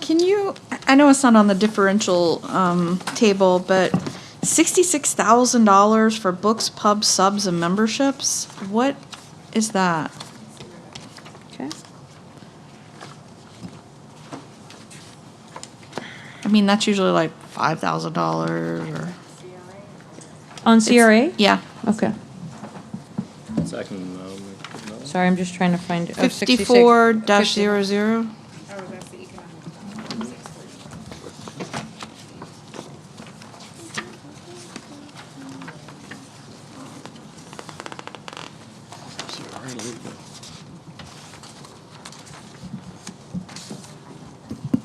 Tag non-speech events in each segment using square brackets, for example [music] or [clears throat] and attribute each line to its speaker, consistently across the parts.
Speaker 1: Can you, I know it's not on the differential um, table, but $66,000 for books, pubs, subs, and memberships? What is that?
Speaker 2: Okay.
Speaker 1: I mean, that's usually like $5,000 or.
Speaker 2: On CRA?
Speaker 1: Yeah.
Speaker 2: Okay.
Speaker 3: Second, um, no.
Speaker 2: Sorry, I'm just trying to find. oh, 66
Speaker 1: 54 dash
Speaker 2: 50.
Speaker 1: zero zero.
Speaker 4: Oh, that's the economic.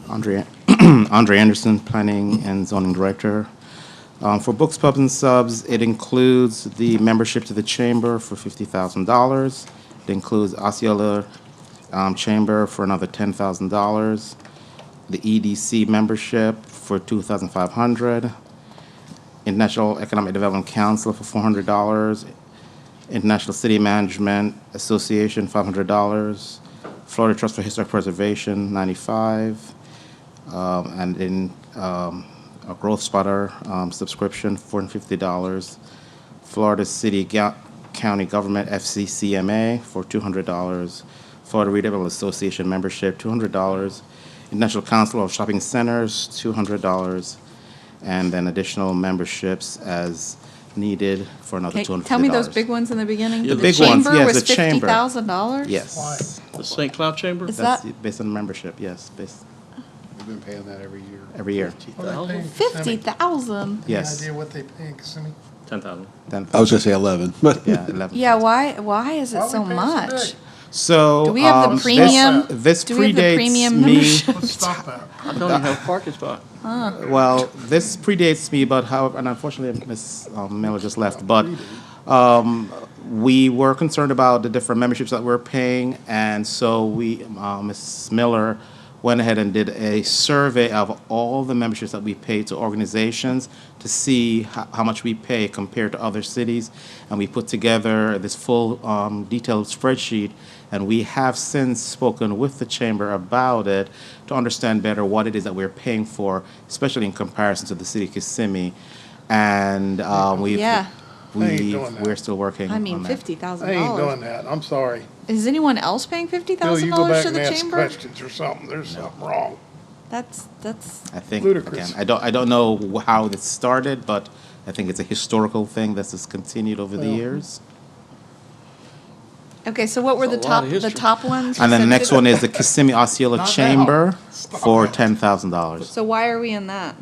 Speaker 5: Andre, [clears throat] Andre Anderson, Planning and Zoning Director. Um, for books, pubs, and subs, it includes the membership to the chamber for fifty thousand dollars. It includes Osceola um, Chamber for another ten thousand dollars. The EDC membership for two thousand five hundred. International Economic Development Council for four hundred dollars. International City Management Association, five hundred dollars. Florida Trust for Historic Preservation, ninety-five. Um, and then, um, a Growth Spotter, um, subscription, four hundred and fifty dollars. Florida City Ga- County Government FCCMA for two hundred dollars. Florida Readable Association membership, two hundred dollars. National Council of Shopping Centers, two hundred dollars. And then additional memberships as needed for another two hundred fifty dollars.
Speaker 1: Tell me those big ones in the beginning.
Speaker 5: The big ones, yes, the chamber.
Speaker 1: Chamber was $50,000?
Speaker 5: Yes.
Speaker 3: The St. Cloud Chamber?
Speaker 1: Is
Speaker 5: That's
Speaker 1: that-
Speaker 5: based on membership, yes, based
Speaker 6: We've been paying that every year.
Speaker 5: every year.
Speaker 6: thousand.
Speaker 1: 50,000?
Speaker 6: Any
Speaker 5: Yes.
Speaker 6: idea what they pay in Kissimmee?
Speaker 3: Ten thousand.
Speaker 5: Then-
Speaker 7: I was gonna say eleven, but
Speaker 5: Yeah, 11.
Speaker 1: Yeah, why, why is
Speaker 6: Why
Speaker 1: it
Speaker 6: we
Speaker 1: so
Speaker 6: paying so
Speaker 1: much?
Speaker 6: big?
Speaker 5: So.
Speaker 1: Do we have the
Speaker 5: um, this-
Speaker 1: premium-
Speaker 5: This
Speaker 1: do we have the
Speaker 5: predates
Speaker 1: premium
Speaker 5: me,
Speaker 1: membership?
Speaker 6: Let's stop that.
Speaker 3: I don't even have a parking spot.
Speaker 5: well, this predates me, but however, and unfortunately, Ms. um, Miller just left, but um, we were concerned about the different memberships that we're paying, and so we, uh, Ms. Miller went ahead and did a survey of all the memberships that we pay to organizations to see how, how much we pay compared to other cities, and we put together this full um, detailed spreadsheet, and we have since spoken with the chamber about it to understand better what it is that we're paying for, especially in comparison to the city of Kissimmee, and um, we've
Speaker 1: Yeah.
Speaker 6: I ain't
Speaker 5: we,
Speaker 6: doing that.
Speaker 5: we're still working
Speaker 1: I mean,
Speaker 5: on that.
Speaker 6: I ain't doing
Speaker 1: $50,000.
Speaker 6: that. I'm sorry.
Speaker 1: Is anyone else paying
Speaker 6: Bill, you go
Speaker 1: $50,000
Speaker 6: back
Speaker 1: to
Speaker 6: and
Speaker 1: the
Speaker 6: ask
Speaker 1: chamber?
Speaker 6: questions or something. There's something wrong.
Speaker 1: That's, that's.
Speaker 5: I think,
Speaker 6: Ludicrous.
Speaker 5: again, I don't, I don't know wh- how this started, but I think it's a historical thing that's just continued over the
Speaker 6: Well-
Speaker 5: years.
Speaker 1: Okay, so what were the
Speaker 3: That's a lot
Speaker 1: top,
Speaker 3: of
Speaker 1: the
Speaker 3: history.
Speaker 1: top ones? you
Speaker 5: And then the
Speaker 1: said
Speaker 5: next
Speaker 1: fif-
Speaker 5: one is the Kissimmee Osceola
Speaker 6: Not now.
Speaker 5: Chamber
Speaker 6: Stop
Speaker 5: for
Speaker 6: it.
Speaker 5: ten thousand dollars.
Speaker 1: So why are we in that?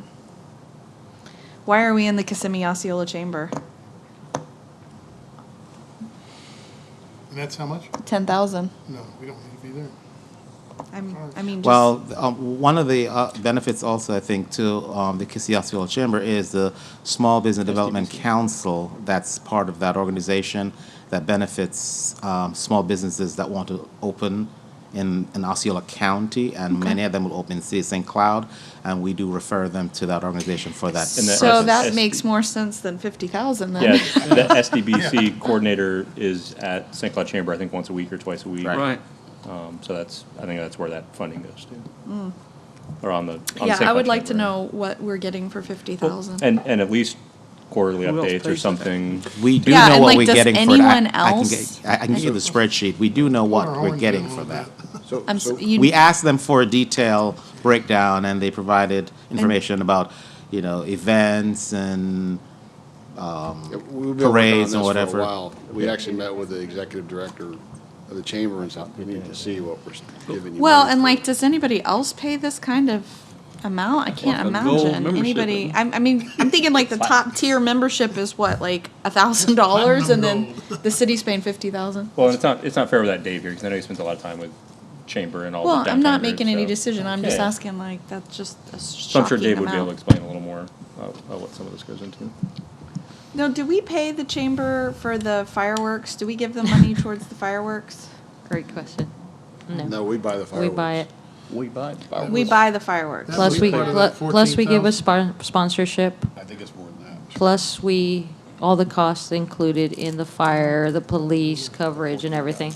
Speaker 1: Why are we in the Kissimmee Osceola Chamber?
Speaker 6: And that's how much?
Speaker 1: Ten thousand.
Speaker 6: No, we don't need to be there.
Speaker 1: I'm, I mean, just.
Speaker 5: Well, th- um, one of the uh, benefits also, I think, to um, the Kissimmee Osceola Chamber is the Small Business Development Council that's part of that organization that benefits um, small businesses that want to open in, in Osceola County, and many of them will open in City of St. Cloud, and we do refer them to that organization for that.
Speaker 3: And that-
Speaker 1: So
Speaker 3: process.
Speaker 1: that
Speaker 3: SD.
Speaker 1: makes more sense than fifty thousand then.
Speaker 8: Yeah, the SDBC coordinator is at St. Cloud Chamber, I think, once a week or twice a week.
Speaker 3: Right.
Speaker 8: Um, So that's, I think that's where that funding goes to. Or on the, on the
Speaker 1: [laughs]
Speaker 8: St.
Speaker 1: Mm. Yeah, I
Speaker 8: Cloud
Speaker 1: would like to
Speaker 8: Chamber.
Speaker 1: know what we're getting for fifty thousand.
Speaker 8: And, and at least quarterly
Speaker 3: Who else
Speaker 8: updates
Speaker 3: pays
Speaker 8: or
Speaker 3: for
Speaker 8: something.
Speaker 5: We do
Speaker 1: Yeah,
Speaker 5: know
Speaker 1: and,
Speaker 5: what
Speaker 1: like,
Speaker 5: we're
Speaker 1: does
Speaker 5: getting for it. I-
Speaker 1: anyone
Speaker 5: I can
Speaker 1: else-
Speaker 5: get- I I can give you the spreadsheet. We do know what
Speaker 6: Or
Speaker 5: we're
Speaker 6: orange
Speaker 5: getting
Speaker 6: and
Speaker 5: for
Speaker 6: all
Speaker 5: that.
Speaker 7: so,
Speaker 1: I'm, s-
Speaker 7: so
Speaker 1: you.
Speaker 5: we asked them for a detailed breakdown and they provided information about you know events and
Speaker 7: we've been working on
Speaker 5: parades
Speaker 7: this
Speaker 5: and
Speaker 7: for a
Speaker 5: whatever.
Speaker 7: while. We actually met with the executive director of the chamber and stuff. We need to see what we're giving you.
Speaker 1: Well,
Speaker 7: money
Speaker 1: and
Speaker 7: for.
Speaker 1: like, does anybody else pay this kind of amount? I can't
Speaker 3: a gold
Speaker 1: imagine
Speaker 3: membership,
Speaker 1: anybody.
Speaker 3: isn't
Speaker 1: I, I mean, I'm thinking like the top tier membership is what, like a thousand dollars, and then the city's paying fifty thousand.
Speaker 8: Well, and it's not, it's not fair with that Dave here, because I know he spends a lot of time with Chamber and all the
Speaker 1: Well, I'm not
Speaker 8: downtown
Speaker 1: making
Speaker 8: groups,
Speaker 1: any
Speaker 8: so-
Speaker 1: decision. I'm just
Speaker 8: Yeah.
Speaker 1: asking like, that's just a
Speaker 8: So I'm sure
Speaker 1: shocking
Speaker 8: Dave would be able to
Speaker 1: amount.
Speaker 8: explain a little more uh, about what some of this goes into.
Speaker 1: No, do we pay the chamber for the fireworks? Do we give them money towards the fireworks?
Speaker 2: Great question. No,
Speaker 7: No, we buy the
Speaker 2: we
Speaker 7: fireworks.
Speaker 2: buy it.
Speaker 3: We buy fireworks.
Speaker 1: We buy the fireworks.
Speaker 6: That
Speaker 2: Plus
Speaker 6: was
Speaker 2: we,
Speaker 6: part of
Speaker 2: plu-
Speaker 6: that
Speaker 2: plus we give a
Speaker 6: 14,000.
Speaker 2: spon- sponsorship,
Speaker 7: I think it's more than that.
Speaker 2: plus we, all the costs included in the fire, the police coverage and everything.